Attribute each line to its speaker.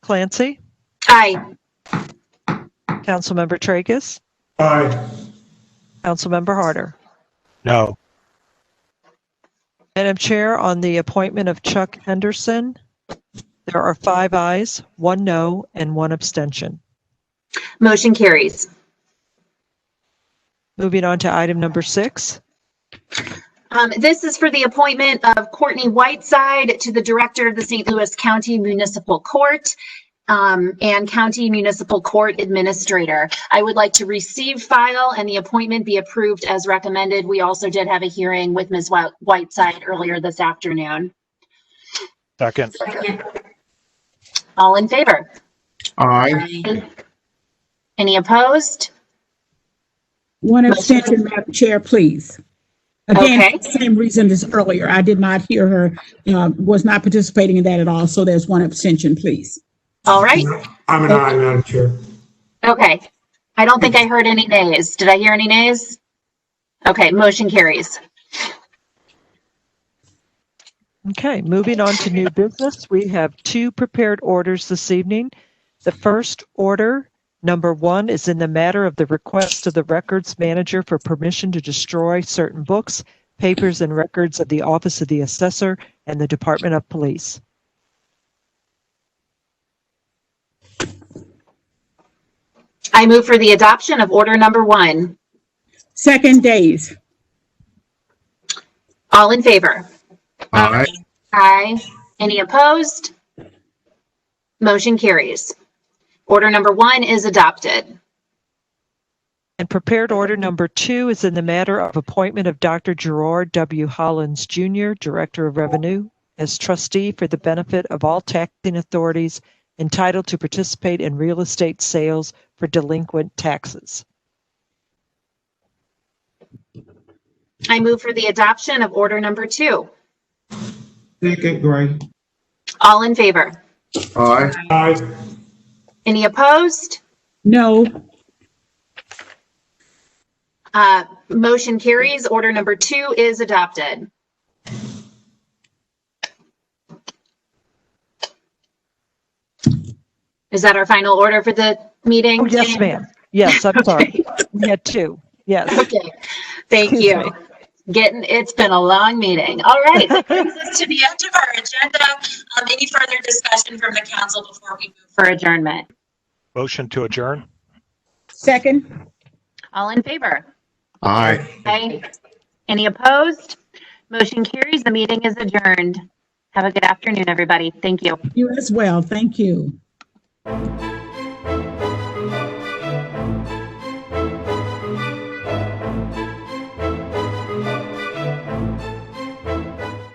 Speaker 1: Clancy,
Speaker 2: Aye.
Speaker 1: Councilmember Tracus,
Speaker 3: Aye.
Speaker 1: Councilmember Harder.
Speaker 4: No.
Speaker 1: Madam Chair, on the appointment of Chuck Henderson, there are five ayes, one no, and one abstention.
Speaker 2: Motion carries.
Speaker 1: Moving on to item number six,
Speaker 2: Um, this is for the appointment of Courtney Whiteside to the Director of the St. Louis County Municipal Court um, and County Municipal Court Administrator. I would like to receive file and the appointment be approved as recommended. We also did have a hearing with Ms. Whi- Whiteside earlier this afternoon.
Speaker 4: Second.
Speaker 2: All in favor?
Speaker 3: Aye.
Speaker 2: Any opposed?
Speaker 5: One abstention, Madam Chair, please. Again,
Speaker 2: Okay.
Speaker 5: same reason as earlier. I did not hear her, uh, was not participating in that at all. So there's one abstention, please.
Speaker 2: All right.
Speaker 3: I'm an aye, Madam Chair.
Speaker 2: Okay. I don't think I heard any nays. Did I hear any nays? Okay, motion carries.
Speaker 1: Okay, moving on to new business, we have two prepared orders this evening. The first order, number one, is in the matter of the request of the records manager for permission to destroy certain books, papers, and records of the Office of the Assessor and the Department of Police.
Speaker 2: I move for the adoption of order number one.
Speaker 5: Second days,
Speaker 2: All in favor?
Speaker 3: Aye.
Speaker 2: Aye. Any opposed? Motion carries. Order number one is adopted.
Speaker 1: And prepared order number two is in the matter of appointment of Dr. Gerard W. Hollins Jr., Director of Revenue, as trustee for the benefit of all taxing authorities entitled to participate in real estate sales for delinquent taxes.
Speaker 2: I move for the adoption of order number two.
Speaker 3: Second, Gray.
Speaker 2: All in favor?
Speaker 3: Aye. Aye.
Speaker 2: Any opposed?
Speaker 5: no.
Speaker 2: Uh, Motion carries. Order number two is adopted. Is that our final order for the meeting?
Speaker 1: Oh, yes, ma'am. Yes, I'm sorry. We had two. Yes.
Speaker 2: Okay, thank you. Getting, it's been a long meeting. All right, that brings us to the end of our agenda. Um, Any further discussion from the council before we move for adjournment?
Speaker 4: Motion to adjourn?
Speaker 5: Second,
Speaker 2: All in favor?
Speaker 3: Aye.
Speaker 2: Aye. Any opposed? Motion carries. The meeting is adjourned. Have a good afternoon, everybody. Thank you.
Speaker 5: you as well. Thank you.